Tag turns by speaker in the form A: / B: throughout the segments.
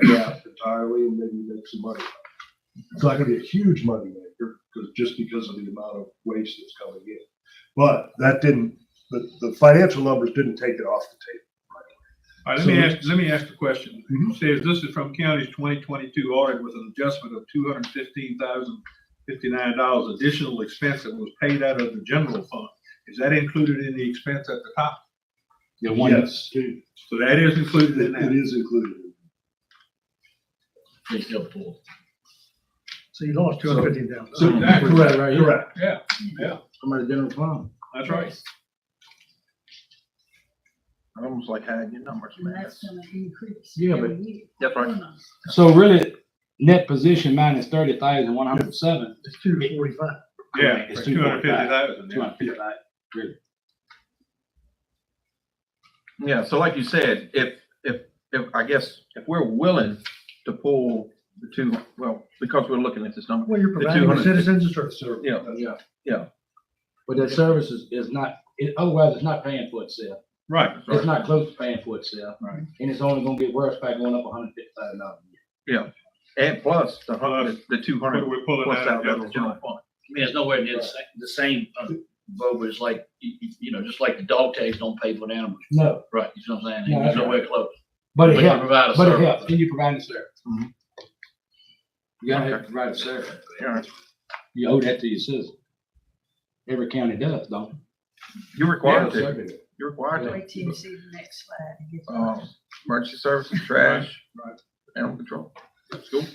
A: that gap entirely and maybe make some money. It's not gonna be a huge money maker, because, just because of the amount of waste that's coming in. But that didn't, the, the financial numbers didn't take it off the
B: All right, let me
A: So-
B: ask, let me ask the question.
A: Mhm.
B: It Says this is from county's twenty twenty-two audit with an adjustment of two hundred fifteen thousand fifty-nine dollars additional expense that was paid out of the general fund. Is that included in the expense at the top? The
A: table.
B: one,
A: Yes, it
B: so that is included in
A: it
B: that.
A: is included.
C: So you lost two hundred fifty thousand.
B: So exactly,
A: Correct, correct.
B: yeah, yeah,
D: From the general fund.
B: that's right.
D: Almost like hiding your numbers,
E: And that's gonna increase.
D: Yeah,
E: every
D: but-
E: year.
D: That's right.
F: So really, net position minus thirty thousand one hundred seven.
C: It's two forty-five.
B: Yeah,
F: It's
B: two hundred fifty thousand,
F: Two
B: yeah.
F: hundred fifty thousand.
D: Yeah, so like you said, if, if, if, I guess, if we're willing to pull the two, well, because we're looking at this number.
C: Well, you're providing the
D: 250.
C: citizens a service.
A: So,
D: Yeah,
A: yeah.
F: But that service is, is not, it, otherwise it's not paying for itself.
B: Right,
F: It's not close to paying for itself.
B: Right.
F: And it's only gonna get worse by going up hundred fifty thousand dollars.
D: And plus the hundred, the two
B: what are
D: hundred
B: we pulling
D: plus
B: out of
D: out
B: the
D: of the
B: general
D: general
B: fund?
D: fund.
G: I mean, it's nowhere near the same, the same, uh, Bob, it's like, you, you- you know, just like the dog tags don't pay for the animals,
F: No,
G: right, you know what I'm
F: No,
G: saying?
F: that's
G: It's nowhere close.
F: but
G: But
F: it
G: you
F: helps,
G: provide a
F: but it
G: service.
F: helps, and you provide the service.
D: Mhm.
F: You gotta have
D: Okay.
F: to provide a service.
D: Yeah.
F: You owe that to your citizens. Every county does, don't
D: You're required
F: Yeah,
D: to, you're required to,
E: Wait till you see the next slide. to get
D: um,
E: that.
D: emergency services, trash,
B: Right, right.
D: animal control. That's cool.
F: they?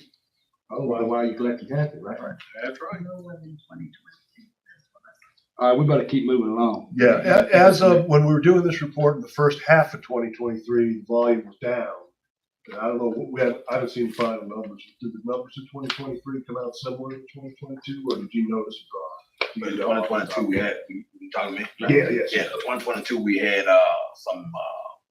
F: Otherwise, why are you collecting taxes, right?
B: That's right.
E: Lower than 2020.
F: All right, we better keep moving along.
A: Yeah, a- as of, when we were doing this report in the first half of twenty twenty-three, the volume was down. And I don't know, what we have, I haven't seen final numbers. Did the numbers in twenty twenty-three come out similar to twenty twenty-two, or did you notice a drop? Do you know?
H: One twenty-two, we had, you you talking to me?
A: Yeah, yes.
H: Yeah, one twenty-two, we had, uh, some, uh,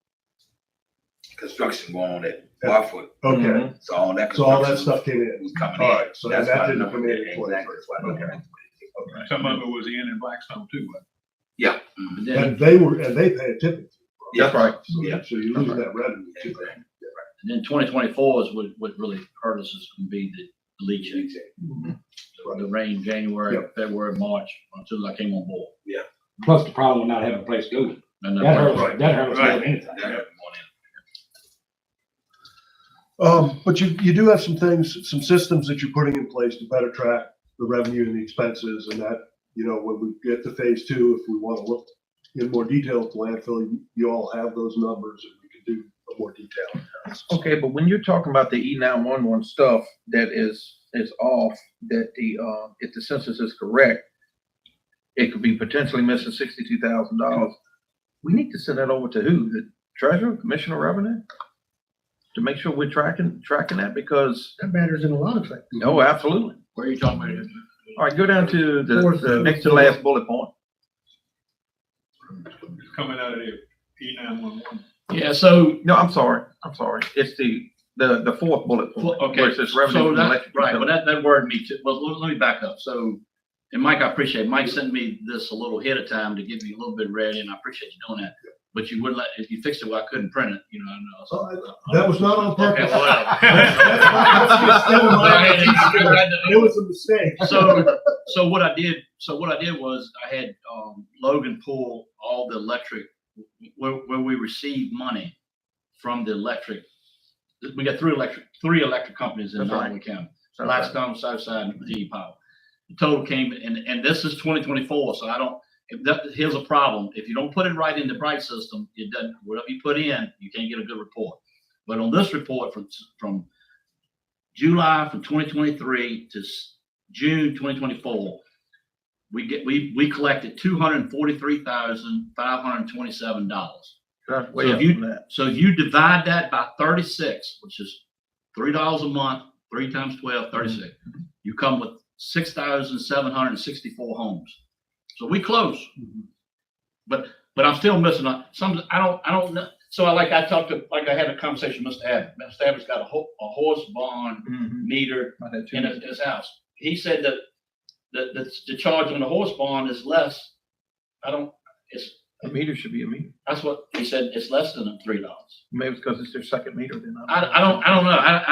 H: construction going on at Barfoot,
A: Okay,
D: Mhm.
H: so all that.
A: so all that
H: construction
A: stuff came in.
H: Was Mm-hmm. coming in.
A: All right, so
H: That's
A: that
H: why the
A: didn't
H: number-
A: come in in
H: Exactly,
A: 23.
H: that's why the number-
B: And Some of it was in in Blackstone too, but
H: Yeah. mhm.
G: But then,
A: And they were, and they pay a tip.
D: That's right.
A: So
H: Yeah.
A: so you lose that revenue too.
G: and then twenty twenty-four is what, what really hurt us is gonna be the leach exit. The rain, January, February, March, until I came on board.
F: Plus the problem with not having a place to go.
G: And
F: That
G: that-
F: hurts, that hurts more than
B: Right.
F: anything.
H: Yeah, morning.
A: Um, but you, you do have some things, some systems that you're putting in place to better track the revenue and the expenses and that, you know, when we get to phase two, if we want to look in more detail at the landfill, you, you all have those numbers and we can do a more detailed. analysis.
D: Okay, but when you're talking about the E nine one one stuff that is, is off, that the, uh, if the census is correct, it could be potentially missing sixty-two thousand dollars. We need to send that over to who? The treasurer, commissioner of revenue? To make sure we're tracking, tracking that because,
C: That matters in a lot of things.
D: oh, absolutely.
G: Where are you talking about?
D: All right, go down to the,
C: Fourth.
D: the next to last bullet point.
B: it's coming out of the E nine one one.
G: Yeah, so,
D: No, I'm sorry, I'm sorry. It's the, the, the fourth bullet point. where
G: okay,
D: it says
G: so
D: revenue from
G: that,
D: electric
G: right,
D: utility.
G: well, that, that word me too, well, let let me back up, so, and Mike, I appreciate, Mike sent me this a little ahead of time to give me a little bit ready, and I appreciate you doing that. But you wouldn't let, if you fixed it, well, I couldn't print it, you know, I know.
A: So I- That was not on
G: Okay,
A: purpose. It
G: whatever.
A: was a mistake.
G: So, so what I did, so what I did was I had, um, Logan pull all the electric, where, where we received money from the electric. We got three electric, three electric companies in
D: That's right.
G: Nottaway County,
D: That's right.
G: Blackstone, Southside, and Virginia Power. The total came, and, and this is twenty twenty-four, so I don't, if that, here's a problem. If you don't put it right in the Bright system, it doesn't, whatever you put in, you can't get a good report. But on this report from, from July from twenty twenty-three to s- June twenty twenty-four, we get, we, we collected two hundred and forty-three thousand, five hundred and twenty-seven dollars.
D: That's
G: So
D: way
G: if
D: up
G: you-
D: from that.
G: So if you divide that by thirty-six, which is three dollars a month, three times 12, 36, you come with six thousand seven hundred and sixty-four homes. So we close. But, but I'm still missing out. Some, I don't, I don't know. So I like, I talked to, like I had a conversation with Mr. Abbott. Mr. Abbott's got a ho- a horse barn
D: Mhm.
G: meter
D: Not that too
G: in
D: much.
G: his, his house. He said that, that, that the charge on the horse barn is less. I don't, it's,
D: A meter should be a meter.
G: That's what, they said it's less than three dollars.
D: Maybe it's because it's their second meter, they're not.
G: I, I don't, I don't know. I,